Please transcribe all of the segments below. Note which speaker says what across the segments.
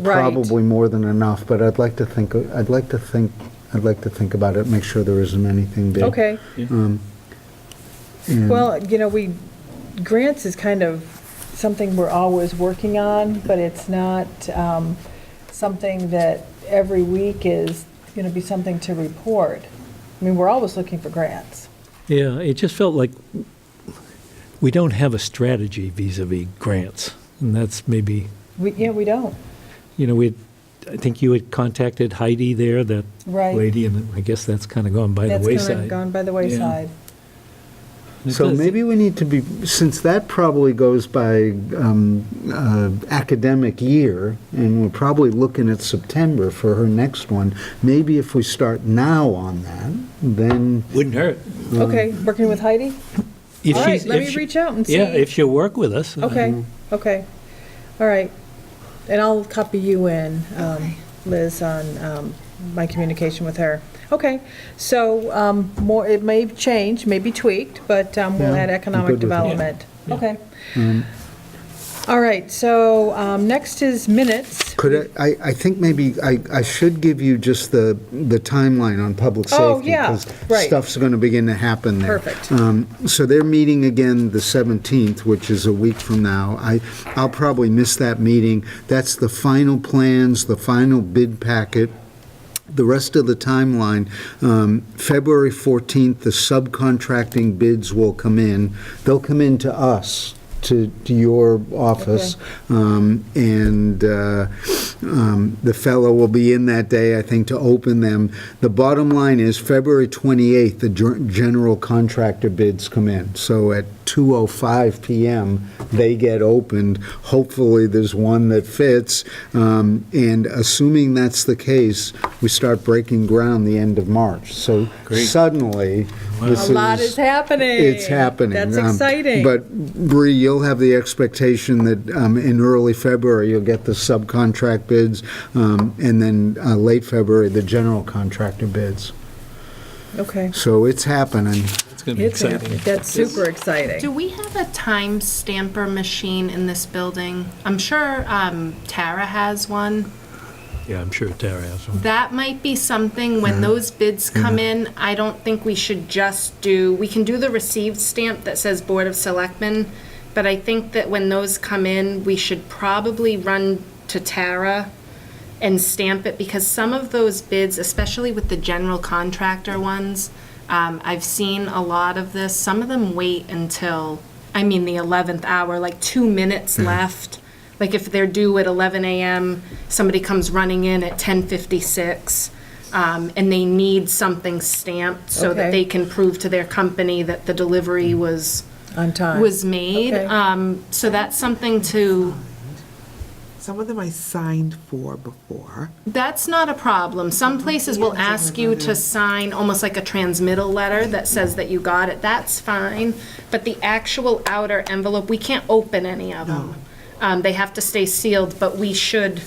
Speaker 1: Right.
Speaker 2: probably more than enough, but I'd like to think, I'd like to think, I'd like to think about it, make sure there isn't anything big.
Speaker 1: Okay.
Speaker 2: Um, and-
Speaker 1: Well, you know, we, grants is kind of something we're always working on, but it's not um, something that every week is going to be something to report. I mean, we're always looking for grants.
Speaker 3: Yeah, it just felt like we don't have a strategy vis-à-vis grants, and that's maybe,
Speaker 1: We, yeah, we don't.
Speaker 3: you know, we, I think you had contacted Heidi there, that
Speaker 1: Right.
Speaker 3: lady, and I guess that's kind of gone by the
Speaker 1: That's
Speaker 3: wayside.
Speaker 1: kind of gone by the wayside.
Speaker 3: It
Speaker 2: So
Speaker 3: does-
Speaker 2: maybe we need to be, since that probably goes by um, uh, academic year, and we're probably looking at September for her next one, maybe if we start now on that, then,
Speaker 3: Wouldn't hurt.
Speaker 1: Okay, working with Heidi?
Speaker 3: If
Speaker 1: All right,
Speaker 3: she's-
Speaker 1: let
Speaker 3: if
Speaker 1: me
Speaker 3: she-
Speaker 1: reach out and see.
Speaker 3: Yeah, if she'll work with us. uh,
Speaker 1: Okay,
Speaker 2: Mm-hmm.
Speaker 1: okay, all right. And I'll copy you in, um, Liz, on um, my communication with her. Okay, so um, more, it may change, may be tweaked, but um, we'll
Speaker 2: Yeah,
Speaker 1: add
Speaker 2: I'm
Speaker 1: economic
Speaker 2: good with that.
Speaker 1: development.
Speaker 3: Yeah.
Speaker 1: Okay.
Speaker 2: Mm-hmm.
Speaker 1: All right, so um, next is minutes.
Speaker 2: could I, I I think maybe I I should give you just the, the timeline on public safety.
Speaker 1: Oh, yeah, right.
Speaker 2: Because stuff's going to begin to happen there.
Speaker 1: Perfect.
Speaker 2: Um, So they're meeting again the 17th, which is a week from now. I, I'll probably miss that meeting. That's the final plans, the final bid packet. The rest of the timeline, um, February 14th, the subcontracting bids will come in. They'll come in to us, to to your office. Um, And uh, um, the fellow will be in that day, I think, to open them. The bottom line is February 28th, the ger- general contractor bids come in. So at 2:05 PM, they get opened. Hopefully, there's one that fits. Um, And assuming that's the case, we start breaking ground the end of March. So suddenly, this is...
Speaker 1: A lot is happening.
Speaker 2: It's happening.
Speaker 1: That's
Speaker 2: Um,
Speaker 1: exciting.
Speaker 2: But Bree, you'll have the expectation that um, in early February, you'll get the subcontract bids, um, and then uh, late February, the general contractor bids.
Speaker 1: Okay.
Speaker 2: So it's happening.
Speaker 3: It's going to be
Speaker 1: It's
Speaker 3: exciting.
Speaker 1: happening. That's super exciting.
Speaker 4: Do we have a time stamper machine in this building? I'm sure um, Tara has one.
Speaker 3: Yeah, I'm sure Tara has one.
Speaker 4: That might be something, when those bids come in, I don't think we should just do, we can do the received stamp that says Board of Selectmen, but I think that when those come in, we should probably run to Tara and stamp it, because some of those bids, especially with the general contractor ones, um, I've seen a lot of this, some of them wait until, I mean, the 11th hour, like two minutes left. Like if they're due at 11 a.m., somebody comes running in at 10:56, um, and they need something stamped so
Speaker 1: Okay.
Speaker 4: that they can prove to their company that the delivery was,
Speaker 1: On time.
Speaker 4: was made.
Speaker 1: Okay.
Speaker 4: Um, So that's something to,
Speaker 5: Some of them I signed for before.
Speaker 4: that's not a problem. Some places will ask you to sign almost like a transmittal letter that says that you got it. That's fine. But the actual outer envelope, we can't open any of them. Um, They have to stay sealed, but we should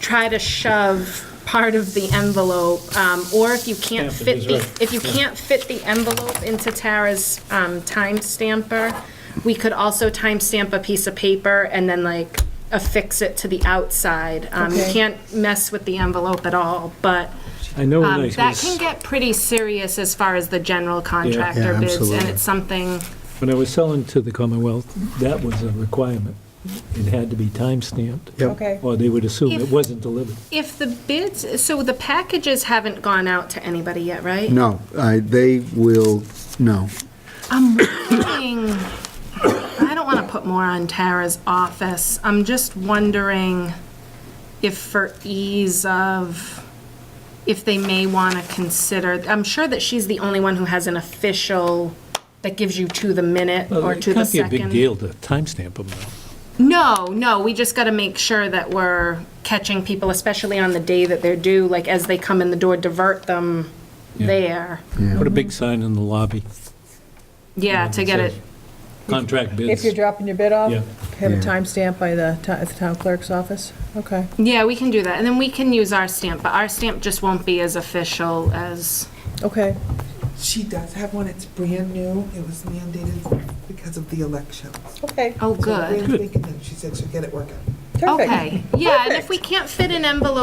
Speaker 4: try to shove part of the envelope. um, Or if you can't
Speaker 3: Stamp it
Speaker 4: fit
Speaker 3: as
Speaker 4: the,
Speaker 3: well.
Speaker 4: if you can't fit the envelope into Tara's um, time stamper, we could also time stamp a piece of paper and then like affix it to the outside. Um, You
Speaker 1: Okay.
Speaker 4: can't mess with the envelope at all, but
Speaker 3: I know when I
Speaker 4: um, that
Speaker 3: was-
Speaker 4: can get pretty serious as far as the general
Speaker 2: Yeah,
Speaker 4: contractor bids, and
Speaker 2: absolutely.
Speaker 4: it's something,
Speaker 3: When I was selling to the Commonwealth, that was a requirement. It had to be time-stamped.
Speaker 2: Yep.
Speaker 1: Okay.
Speaker 3: Or they would assume it
Speaker 4: If-
Speaker 3: wasn't delivered.
Speaker 4: if the bids, so the packages haven't gone out to anybody yet, right?
Speaker 2: No, I- they will, no.
Speaker 4: I'm wondering, I don't want to put more on Tara's office. I'm just wondering if for ease of, if they may want to consider, I'm sure that she's the only one who has an official that gives you to the minute or to the
Speaker 3: It can't be a big
Speaker 4: second.
Speaker 3: deal to timestamp them, though.
Speaker 4: No, no, we just got to make sure that we're catching people, especially on the day that they're due, like as they come in the door, divert them
Speaker 3: Yeah.
Speaker 4: there.
Speaker 3: Put a big sign in the lobby.
Speaker 4: Yeah, to get it,
Speaker 3: Contract bids.
Speaker 1: If you're dropping your bid off,
Speaker 3: Yeah.
Speaker 1: have a
Speaker 2: Yeah.
Speaker 1: timestamp by the, ti- at the town clerk's office? Okay.
Speaker 4: yeah, we can do that. And then we can use our stamp, but our stamp just won't be as official as,
Speaker 1: Okay,
Speaker 5: She does have one, it's brand new, it was mandated because of the elections.
Speaker 1: okay.
Speaker 4: oh,
Speaker 5: So
Speaker 4: good.
Speaker 5: Rand's making them. She said she'll get it working.
Speaker 1: Perfect.
Speaker 4: Okay, yeah, and if we can't fit an envelope